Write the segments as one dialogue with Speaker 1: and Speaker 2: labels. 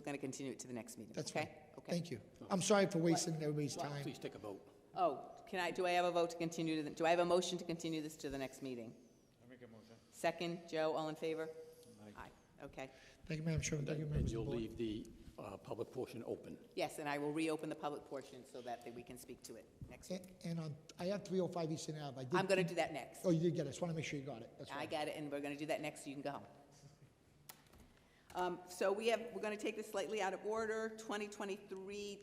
Speaker 1: going to continue it to the next meeting,
Speaker 2: That's
Speaker 1: okay?
Speaker 2: fine.
Speaker 1: Okay.
Speaker 2: Thank you. I'm sorry for wasting everybody's time.
Speaker 3: Please take a vote.
Speaker 1: Oh, can I, do I have a vote to continue to, the- do I have a motion to continue this to the next meeting? Second, Joe, all in favor? Aye, okay.
Speaker 2: Thank you, Madam Chairman. Thank you,
Speaker 3: And
Speaker 2: members of
Speaker 3: you'll
Speaker 2: the board.
Speaker 3: leave the uh, public portion open.
Speaker 1: Yes, and I will reopen the public portion so that we can speak to it next week.
Speaker 2: A- And on, I have 305 Eastern Ave. I did-
Speaker 1: I'm going to do that next.
Speaker 2: Oh, you did get it. Just want to make sure you got it. That's
Speaker 1: I
Speaker 2: right.
Speaker 1: got it, and we're going to do that next, so you can go home. Um, So we have, we're going to take this slightly out of order. 2023-03,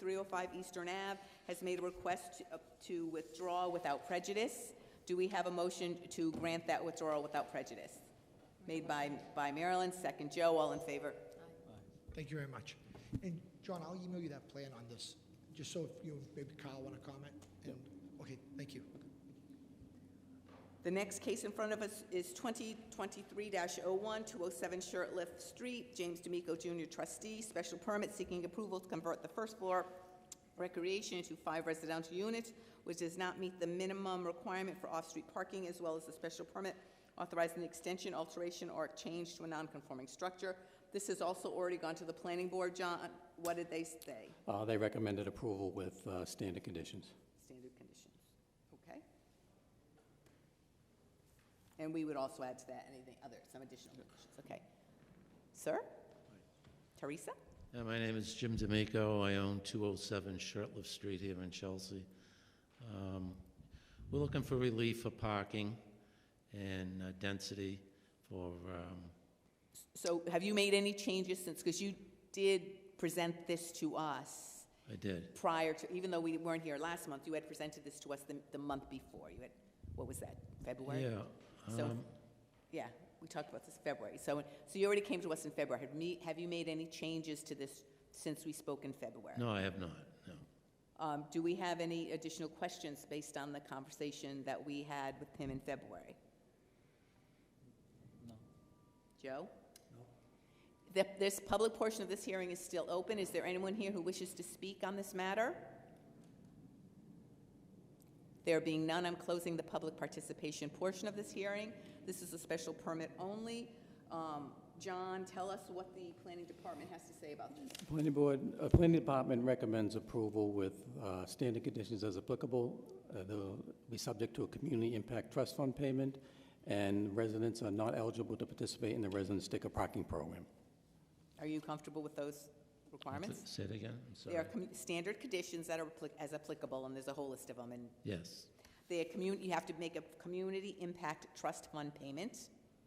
Speaker 1: 305 Eastern Ave has made a request to- uh, to withdraw without prejudice. Do we have a motion to grant that withdrawal without prejudice? Made by by Marilyn, second Joe, all in favor?
Speaker 2: Thank you very much. And John, I'll email you that plan on this, just so if you, maybe Kyle want to comment. And, okay, thank you.
Speaker 1: The next case in front of us is 2023-01, 207 Shirtlift oh Street, James D'Amico Jr. trustee, special permit seeking approval to convert the first floor recreation into five residential units, which does not meet the minimum requirement for off-street parking, as well as the special permit authorizing the extension, alteration, or change to a non-conforming structure. This has also already gone to the planning board, John. What did they say?
Speaker 3: Uh, They recommended approval with uh, standard conditions.
Speaker 1: Standard conditions, okay? And we would also add to that anything other, some additional conditions, okay? Sir? Teresa?
Speaker 4: Yeah, my name is Jim D'Amico. I own 207 Shirtliff Street here in Chelsea. Um, We're looking for relief for parking and uh, density for, um,
Speaker 1: So have you made any changes since, because you did present this to us
Speaker 4: I did,
Speaker 1: prior to, even though we weren't here last month, you had presented this to us the, the month before. You had, what was that, February?
Speaker 4: yeah.
Speaker 1: So,
Speaker 4: um,
Speaker 1: yeah, we talked about this February. So, so you already came to us in February. Have me, have you made any changes to this since we spoke in February?
Speaker 4: No, I have not, no.
Speaker 1: Um, Do we have any additional questions based on the conversation that we had with him in February? No. Joe? No. This public portion of this hearing is still open. Is there anyone here who wishes to speak on this matter? There being none, I'm closing the public participation portion of this hearing. This is a special permit only. Um, John, tell us what the planning department has to say about this.
Speaker 3: Planning Board, uh, Planning Department recommends approval with uh, standard conditions as applicable. Uh, They'll be subject to a community impact trust fund payment, and residents are not eligible to participate in the resident sticker parking program.
Speaker 1: Are you comfortable with those requirements?
Speaker 4: Say it again, I'm
Speaker 1: There are
Speaker 4: sorry.
Speaker 1: commu- standard conditions that are appli- as applicable, and there's a whole list of them, and
Speaker 4: Yes,
Speaker 1: they are commun, you have to make a community impact trust fund payment,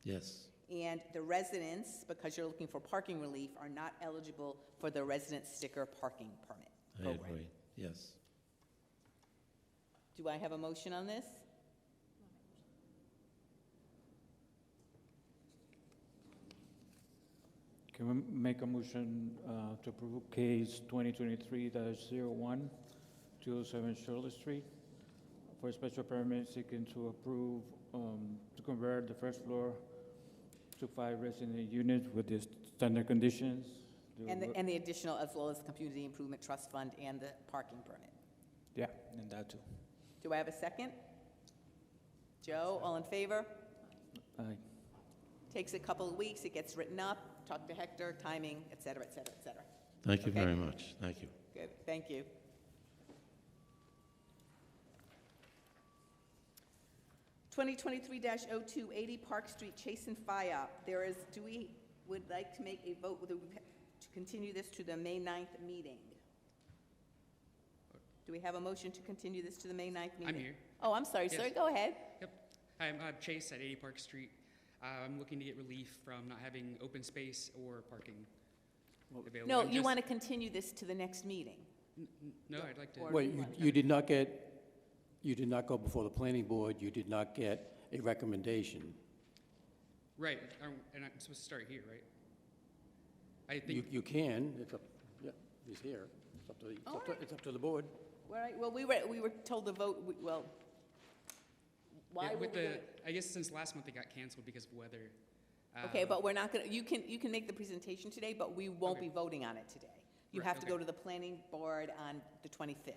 Speaker 4: yes,
Speaker 1: and the residents, because you're looking for parking relief, are not eligible for the resident sticker parking permit
Speaker 4: I
Speaker 1: program.
Speaker 4: agree, yes.
Speaker 1: Do I have a motion on this?
Speaker 5: Can we make a motion uh, to approve case 2023-01, 207 Shirley Street, for a special permit seeking to approve, um, to convert the first floor to five resident units with the standard conditions? The
Speaker 1: And the,
Speaker 5: wo-
Speaker 1: and the additional, as well as community improvement trust fund and the parking permit.
Speaker 5: Yeah, and that too.
Speaker 1: Do I have a second? Joe, all in favor?
Speaker 5: Aye.
Speaker 1: Takes a couple of weeks, it gets written up, talk to Hector, timing, et cetera, et cetera, et cetera.
Speaker 4: Thank you
Speaker 1: Okay.
Speaker 4: very much, thank you.
Speaker 1: Good, thank you. Twenty twenty-three 280 Park Street, Chase and FIOP. There is, do we, would like to make a vote with- to continue this to the May 9th meeting? Do we have a motion to continue this to the May 9th meeting?
Speaker 6: I'm here.
Speaker 1: Oh, I'm sorry, sir,
Speaker 6: Yes.
Speaker 1: go ahead.
Speaker 6: Yep. Hi, I'm uh, Chase at 80 Park Street. Uh, I'm looking to get relief from not having open space or parking available.
Speaker 1: No,
Speaker 6: I'm
Speaker 1: you
Speaker 6: just-
Speaker 1: want to continue this to the next meeting?
Speaker 6: N- n- No, I'd like to.
Speaker 1: Or-
Speaker 3: Wait, you- you did not get, you did not go before the Planning Board, you did not get a recommendation.
Speaker 6: Right, I'm- and I'm supposed to start here, right? I
Speaker 3: You
Speaker 6: think,
Speaker 3: you can, it's up, yeah, he's here, it's up to, the- it's up to- it's up to the board.
Speaker 1: All right, well, we were, we were told to vote, we- well, why
Speaker 6: yeah,
Speaker 1: were we
Speaker 6: with the,
Speaker 1: gonna-
Speaker 6: I guess since last month it got canceled because of weather.
Speaker 1: Okay,
Speaker 6: uh,
Speaker 1: but we're not gonna, you can, you can make the presentation today, but we won't
Speaker 6: Okay.
Speaker 1: be voting on it today. You
Speaker 6: Right,
Speaker 1: have to go
Speaker 6: okay.
Speaker 1: to the planning board on the 25th.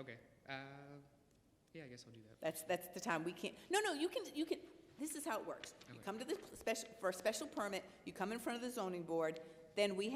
Speaker 6: Okay, uh, yeah, I guess I'll do that.
Speaker 1: That's, that's the time we can't, no, no, you can, you can, this is how it works. You
Speaker 6: Okay.
Speaker 1: come to the special, for a special permit, you come in front of the zoning board, then we have